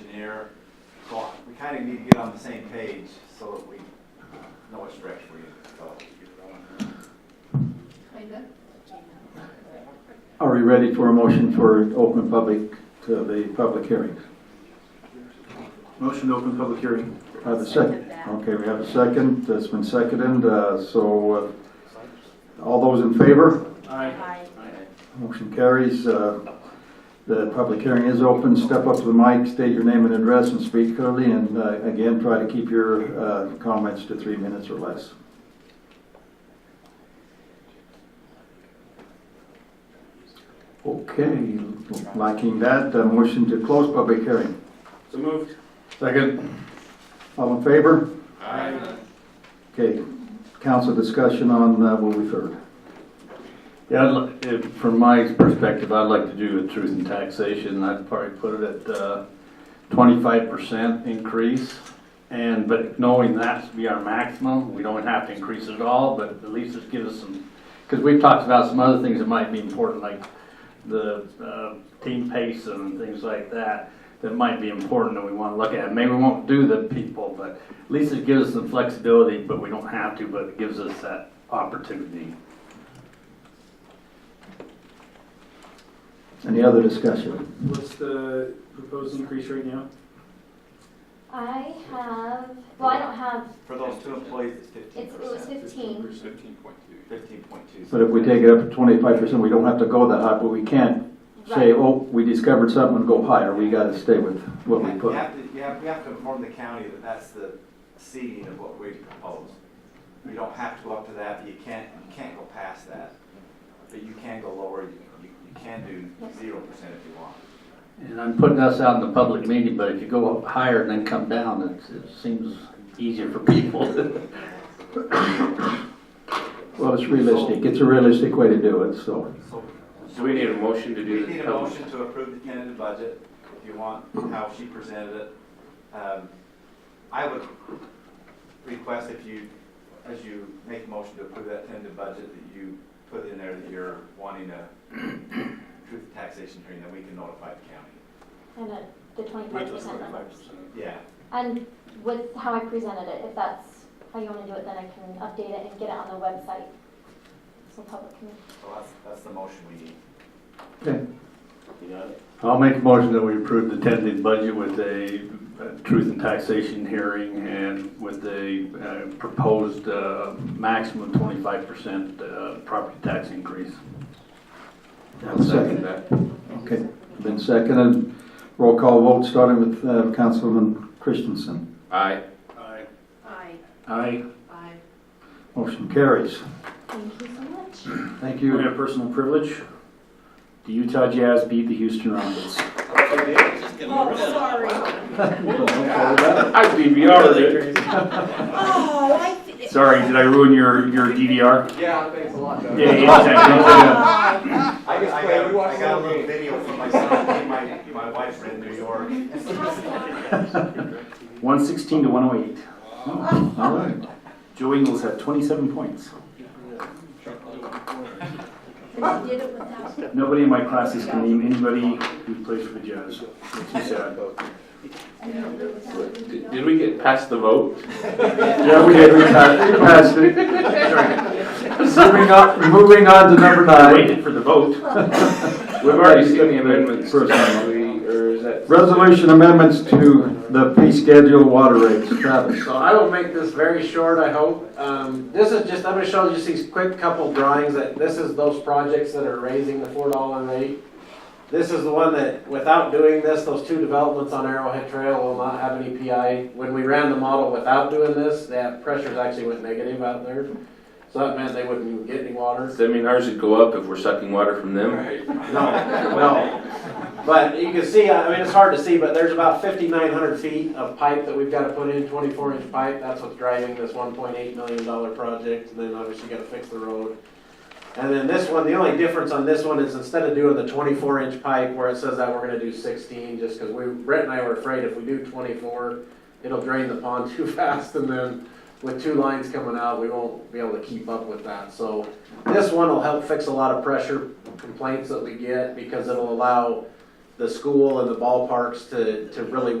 engineer. So we kind of need to get on the same page so that we know what stretch we're in, so. Linda? Are we ready for a motion for open public, to the public hearing? Motion to open public hearing. Have a second. Okay, we have a second, that's been seconded, uh, so uh, all those in favor? Aye. Motion carries. uh, The public hearing is open. Step up to the mic, state your name and address, and speak clearly, and uh, again, try to keep your uh, comments to three minutes or less. Okay, lacking that, uh, motion to close public hearing. So moved. Second. All in favor? Aye. Okay, council discussion on, uh, will we third? Yeah, I'd li- if- from my perspective, I'd like to do a truth in taxation, I'd probably put it at uh, twenty-five percent increase. And, but knowing that's be our maximum, we don't have to increase it at all, but at least just give us some, because we've talked about some other things that might be important, like the uh, team pace and things like that, that might be important that we want to look at. Maybe we won't do the people, but at least it gives us some flexibility, but we don't have to, but it gives us that opportunity. Any other discussion? What's the proposed increase right now? I have, well, I don't have, For those two employees, it's fifteen it's, it was percent, fifteen. fifteen point two. But if we take it up to twenty-five percent, we don't have to go that high, but we can't say, Right. oh, we discovered something and go higher. We gotta stay with what we You put. have to, you have, we have to inform the county that that's the seeding of what we propose. You don't have to go up to that, but you can't, you can't go past that. But you can go lower, you, you you can do zero percent if you want. And I'm putting us out in the public meeting, but if you go up higher and then come down, it, it seems easier for people. Well, it's realistic. It's a realistic way to do it, so. So Do we need a motion to do We this? need a motion to approve the tentative budget, if you want, how she presented it. Um, I would request if you, as you make a motion to approve that tentative budget, that you put in there that you're wanting a truth in taxation hearing, then we can notify the county. And uh, the twenty-five percent number. Yeah, And with how I presented it, if that's how you wanna do it, then I can update it and get it on the website. So public can, so that's, that's the motion we need. Okay. I'll make a motion that we approve the tentative budget with a uh, truth and taxation hearing and with a uh, proposed uh, maximum twenty-five percent uh, property tax increase. I'll second that. Okay, been seconded. Roll call vote, starting with uh, Councilman Christensen. Aye. Aye. Aye. Aye. Motion carries. thank you so much. Thank You you. have personal privilege. The Utah Jazz beat the Houston Rockets. Oh, sorry. I DVR Oh, I. thi- Sorry, did I ruin your, your DVR? Yeah, thanks a lot, Doug. Yeah, yeah, exactly. Ah, I got, I got- I got a little video from my son, and my, my wife's in New York. One sixteen to one oh eight. All right. Joe Ingles had twenty-seven points. but you did it without. Nobody in my classes can name anybody who plays for the Jazz. Makes me sad. I did it without. Did did we get past the vote? Yeah, we did, we passed we passed it. Moving on, moving on to number I nine. waited for the vote. We've already seen the amendments. First haven't we? Or is that? Resolution amendments to the fee schedule water rates, Travis. So I will make this very short, I hope. Um, this is just, I'm gonna show just these quick couple drawings that, this is those projects that are raising the four dollar rate. This is the one that, without doing this, those two developments on Arrowhead Trail will not have any PI. When we ran the model without doing this, that pressures actually went negative out there. So that meant they wouldn't even get any water. Does that mean ours would go up if we're sucking water from them? No, no. But you can see, I mean, it's hard to see, but there's about fifty-nine hundred feet of pipe that we've gotta put in, twenty-four inch pipe. That's what's driving this one point eight million dollar project, and then obviously you gotta fix the road. And then this one, the only difference on this one is instead of doing the twenty-four inch pipe where it says that, we're gonna do sixteen, just cause we, Brett and I were afraid if we do twenty-four, it'll drain the pond too fast, and then with two lines coming out, we won't be able to keep up with that, so. This one will help fix a lot of pressure complaints that we get because it'll allow the school and the ballparks to, to really